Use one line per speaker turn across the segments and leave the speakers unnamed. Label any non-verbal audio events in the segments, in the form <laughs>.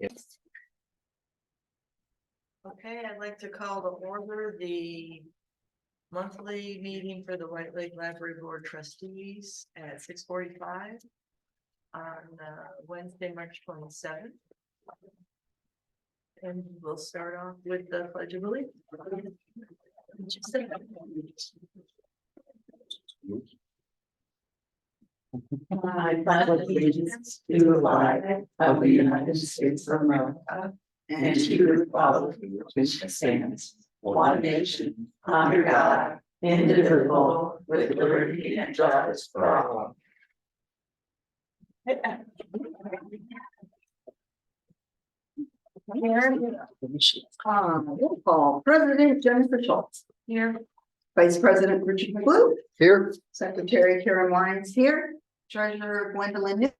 Yes.
Okay, I'd like to call to order the monthly meeting for the White Lake Library Board trustees at six forty-five on uh, Wednesday, March twenty-seventh. And we'll start off with the pledge of allegiance.
I pledge allegiance to the flag of the United States of America and to the republic which stands one nation under God, indivisible, with liberty and justice for all.
Um, roll call. President Jennifer Schultz. Here. Vice President Richard Blue. Here. Secretary Karen Lyons here. Treasurer Gwendolyn.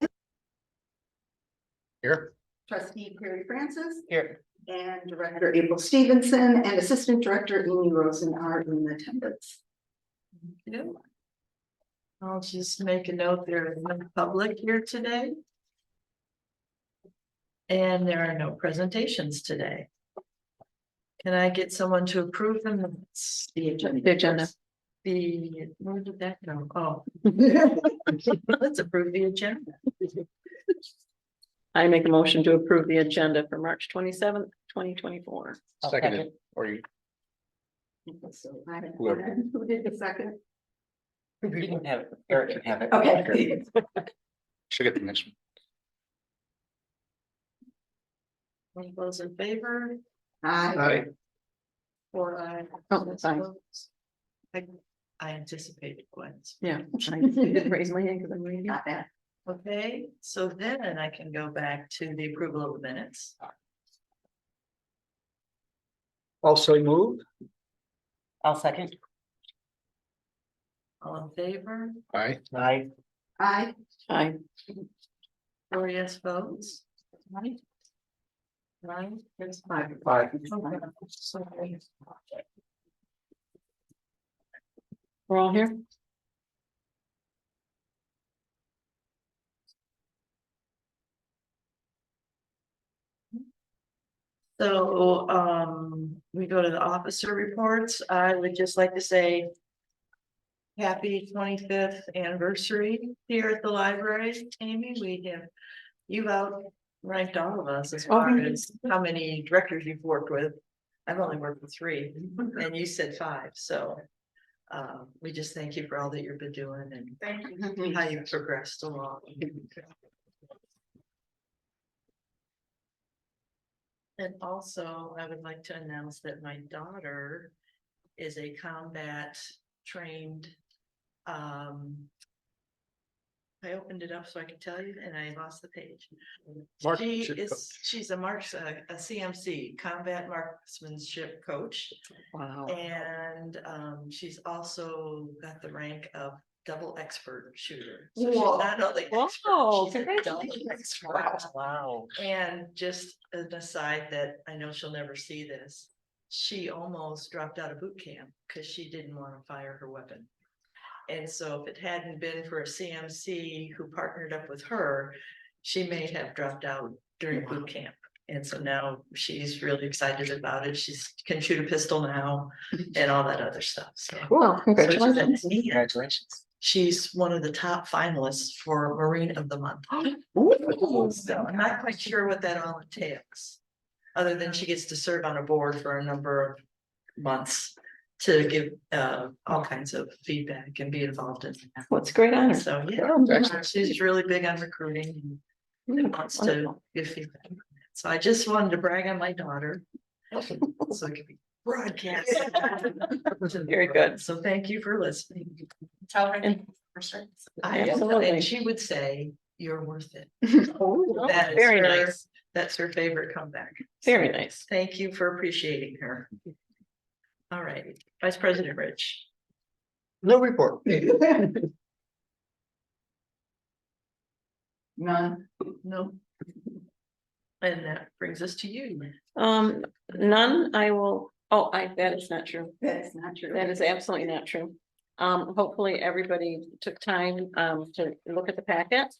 Here. Trustee Perry Francis.
Here.
And Director April Stevenson and Assistant Director Amy Rosen are in <laughs> attendance.
I'll just make a note, there is no public here today. And there are no presentations today. Can I get someone to approve the minutes?
The agenda.
The, where did that go? Oh. Let's approve the agenda.
I make a motion to approve the agenda for March twenty-seventh, twenty twenty-four.
Seconded, or you,
So I Who did the second?
You can have it, Eric can have it.
Okay.
should get the next one.
All those in favor?
Aye.
Or I.
Oh, that's fine.
I, I anticipated Gwen's.
Yeah. I didn't Raise my hand because I'm reading.
Not bad.
Okay, so then I can go back to the approval of the minutes.
Also moved.
I'll second.
All in favor?
Aye.
Aye.
Aye.
Aye.
Four yes votes. Right? Right, that's five.
Aye.
Okay, so we-
We're all here.
So, um, we go to the officer reports. I would just like to say. Happy twenty-fifth anniversary here at the library, Amy. We have, you've outranked all of us as far
really?
as how many directors you've worked with. I've only worked with three and you said five, so. Um, we just thank you for all that you've been doing and
Thank you.
how you've progressed along. And also, I would like to announce that my daughter is a combat trained. Um. I opened it up so I could tell you and I lost the page.
Mark-
She
ship
is,
coach.
she's a marks, a a CMC, combat marksmanship coach.
Wow.
And um, she's also got the rank of double expert shooter. So she's
Whoa.
not only. an expert,
Whoa,
she's a double
congratulations.
expert.
Wow.
And just an aside that I know she'll never see this, she almost dropped out of boot camp because she didn't want to fire her weapon. And so if it hadn't been for a CMC who partnered up with her, she may have dropped out during boot camp. And so now she's really excited about it. She's can shoot a pistol
<laughs>
now and all that other stuff. So
Well, congratulations.
Congratulations.
Congratulations.
she's one of the top finalists for Marine of the Month. So I'm not quite sure what that all entails. Other than she gets to serve on a board for a number of months to give uh all kinds of feedback and be involved in. that.
What's great honor.
So,
Oh,
yeah,
excellent.
she's really big on recruiting
Yeah,
and wants to
wonderful.
give feedback. So I just wanted to brag on my
<laughs>
daughter. So it could be broadcast.
Very good.
So thank you for listening.
Tell her.
And-
I am,
Absolutely.
and she would say, you're worth it.
Oh,
That is
Very
her-
nice,
That's her favorite comeback.
very nice.
Thank you for appreciating her. All right, Vice President Rich.
No report.
<laughs> None.
No. And that brings us to you.
Um, none, I will, oh, I, that is not true.
That's not true.
That is absolutely not true. Um, hopefully everybody took time, um, to look at the packet.